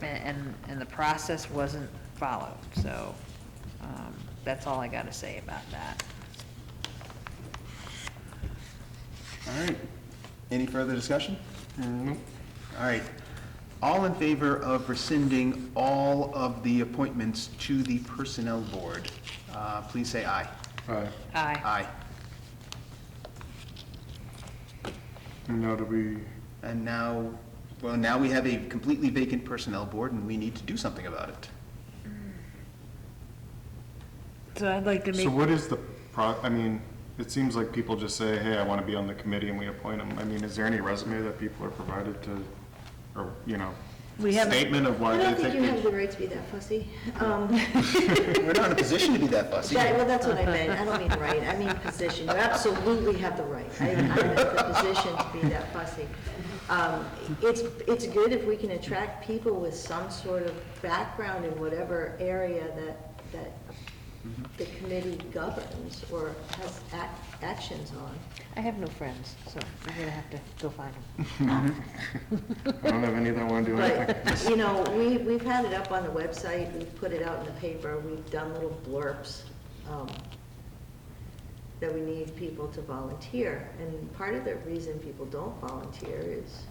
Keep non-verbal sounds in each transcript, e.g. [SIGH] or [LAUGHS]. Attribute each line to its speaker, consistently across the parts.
Speaker 1: and, and, and the process wasn't followed, so, um, that's all I gotta say about that.
Speaker 2: All right. Any further discussion? All right. All in favor of rescinding all of the appointments to the Personnel Board, uh, please say aye.
Speaker 3: Aye.
Speaker 1: Aye.
Speaker 2: Aye.
Speaker 3: And now do we,
Speaker 2: And now, well, now we have a completely vacant Personnel Board, and we need to do something about it.
Speaker 1: So I'd like to
Speaker 3: so
Speaker 1: make,
Speaker 3: what is the pro, I mean, it seems like people just say, hey, I want to be on the committee and we appoint them. I mean, is there any resume that people are provided to, or, you know,
Speaker 1: We haven't-
Speaker 3: statement of why
Speaker 4: I
Speaker 3: they
Speaker 4: don't think you have
Speaker 3: think?
Speaker 4: the right to be that fussy. Um,
Speaker 2: We're not in a position to be that fussy.
Speaker 4: that- Well, that's what I meant, I don't mean right, I mean position, you absolutely have the right. I I meant the position to be that fussy. Um, It's, it's good if we can attract people with some sort of background in whatever area that, that the committee governs or has ac- actions on.
Speaker 1: I have no friends, so I'm gonna have to go find them.
Speaker 3: I don't have any that want to do anything.
Speaker 4: But, [LAUGHS] you know, we, we've had it up on the website, we've put it out in the paper, we've done little blurbs
Speaker 1: [LAUGHS]
Speaker 4: um, that we need people to volunteer. And part of the reason people don't volunteer is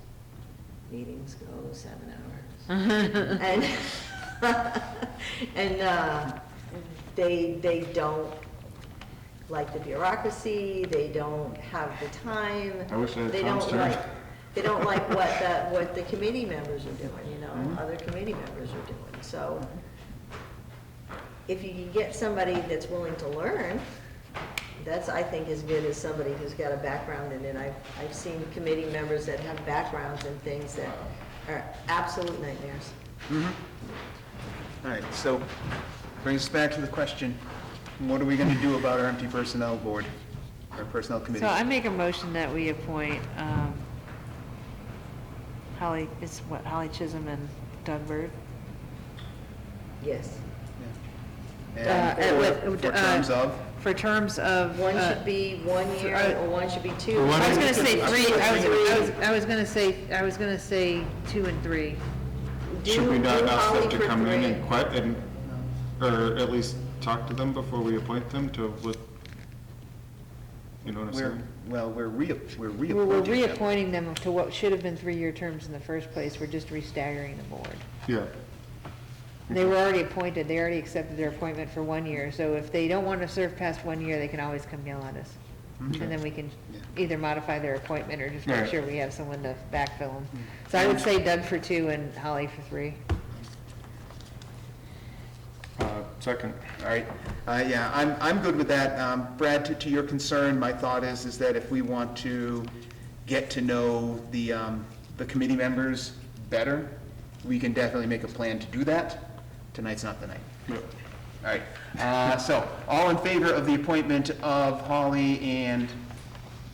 Speaker 4: meetings go seven hours. [LAUGHS] And, and uh, they, they don't like the bureaucracy, they don't have the time.
Speaker 3: I wish I had
Speaker 4: They
Speaker 3: Tom's
Speaker 4: don't
Speaker 3: turn.
Speaker 4: like- They
Speaker 3: [LAUGHS]
Speaker 4: don't like what the, what the committee members are doing, you
Speaker 3: Mm-hmm.
Speaker 4: know, other committee members are doing, so if you can get somebody that's willing to learn, that's, I think, as good as somebody who's got a background in it. I've, I've seen committee members that have backgrounds in things that are absolute nightmares.
Speaker 2: All right, so brings us back to the question, what are we going to do about our empty Personnel Board, our Personnel Committee?
Speaker 1: So I make a motion that we appoint, um, Holly, it's what, Holly Chisholm and Doug Bird?
Speaker 4: Yes.
Speaker 1: Uh,
Speaker 2: And
Speaker 1: and
Speaker 2: for
Speaker 1: with-
Speaker 2: for
Speaker 1: uh,
Speaker 2: terms of?
Speaker 1: For terms of.
Speaker 4: One
Speaker 1: uh,
Speaker 4: should be one year, or one should be two.
Speaker 3: One
Speaker 1: I was gonna say
Speaker 2: I was
Speaker 1: three, I was, I was,
Speaker 4: three.
Speaker 1: I was gonna say, I was gonna say two and three.
Speaker 4: Do-
Speaker 3: Should we not
Speaker 4: do
Speaker 3: ask
Speaker 4: Holly
Speaker 3: them to
Speaker 4: for
Speaker 3: come in
Speaker 4: three.
Speaker 3: and quit and, or at least talk to them before we appoint them to what? You know what I'm
Speaker 2: We're,
Speaker 3: saying?
Speaker 2: well, we're re, we're reappointing.
Speaker 1: We're, we're
Speaker 2: them.
Speaker 1: reappointing them to what should have been three-year terms in the first place, we're just restaggering the board.
Speaker 3: Yeah.
Speaker 1: They were already appointed, they already accepted their appointment for one year, so if they don't wanna serve past one year, they can always come yell at us. And then we can
Speaker 2: Yeah.
Speaker 1: either modify their appointment or just make
Speaker 3: Right.
Speaker 1: sure we have someone to backfill them. So I would say Doug for two and Holly for three.
Speaker 3: Uh, second.
Speaker 2: All right, uh, yeah, I'm, I'm good with that. Um, Brad, to, to your concern, my thought is, is that if we want to get to know the, um, the committee members better, we can definitely make a plan to do that. Tonight's not the night.
Speaker 3: Yep.
Speaker 2: All right, uh, so, all in favor of the appointment of Holly and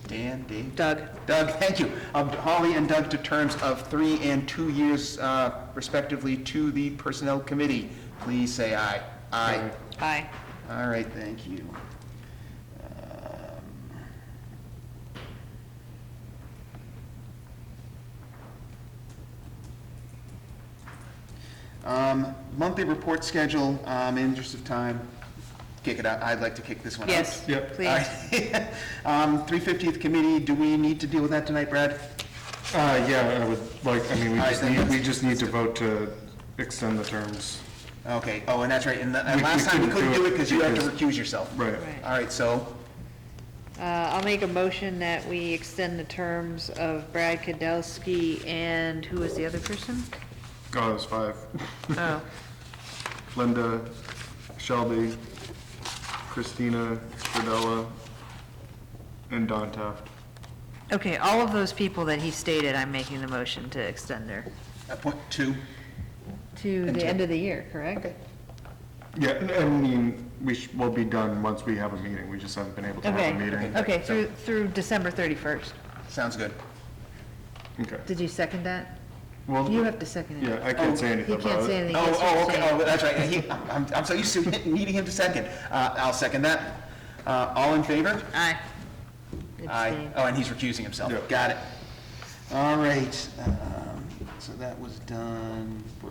Speaker 2: Dan, Dave?
Speaker 1: Doug,
Speaker 2: Doug, thank you. Of Holly and Doug to terms of three and two years uh, respectively to the Personnel Committee. Please say aye. Aye.
Speaker 1: aye.
Speaker 2: All right, thank you. Um, Um, monthly report schedule, um, in the interest of time, kick it out. I'd like to kick this one out.
Speaker 1: Yes,
Speaker 3: Yep.
Speaker 1: please.
Speaker 2: [LAUGHS] Um, 350th Committee, do we need to deal with that tonight, Brad?
Speaker 3: Uh, yeah, I would like, I mean, we
Speaker 2: All right,
Speaker 3: just
Speaker 2: then
Speaker 3: need,
Speaker 2: let's-
Speaker 3: we just need to vote to extend the terms.
Speaker 2: Okay, oh, and that's right, and the- and
Speaker 3: We- we
Speaker 2: last time we couldn't do it because you had to
Speaker 3: because-
Speaker 2: recuse yourself.
Speaker 3: Right.
Speaker 1: Right.
Speaker 2: All right, so,
Speaker 1: Uh, I'll make a motion that we extend the terms of Brad Kadelski and who was the other person?
Speaker 3: Oh, it's five.
Speaker 1: Oh,
Speaker 3: [LAUGHS] Linda, Shelby, Christina, Cordella, and Don Taft.
Speaker 1: okay, all of those people that he stated, I'm making the motion to extend their,
Speaker 2: appoint two.
Speaker 1: to the
Speaker 2: Until-
Speaker 1: end of the year, correct?
Speaker 2: Okay.
Speaker 3: Yeah, and- I mean, we sh will be done once we have a meeting, we just haven't been able to have a
Speaker 1: Okay,
Speaker 3: meeting.
Speaker 1: okay, through, through December 31st.
Speaker 2: Sounds good.
Speaker 3: Okay.
Speaker 1: Did you second that?
Speaker 3: Well,
Speaker 1: You have to second it.
Speaker 3: Yeah, I can't say anything
Speaker 1: He
Speaker 3: about it.
Speaker 1: can't say anything.
Speaker 2: Oh,
Speaker 1: Yes,
Speaker 2: Um, oh,
Speaker 1: you're
Speaker 2: okay,
Speaker 1: saying.
Speaker 2: oh, that's right, he, I'm, I'm so used to [LAUGHS] needing him to second. Uh, I'll second that. Uh, all in favor?
Speaker 1: Aye.
Speaker 2: Aye.
Speaker 1: Abstain.
Speaker 2: Oh, and he's recusing himself.
Speaker 3: Yeah.
Speaker 2: Got it. All right, um, so that was done. We're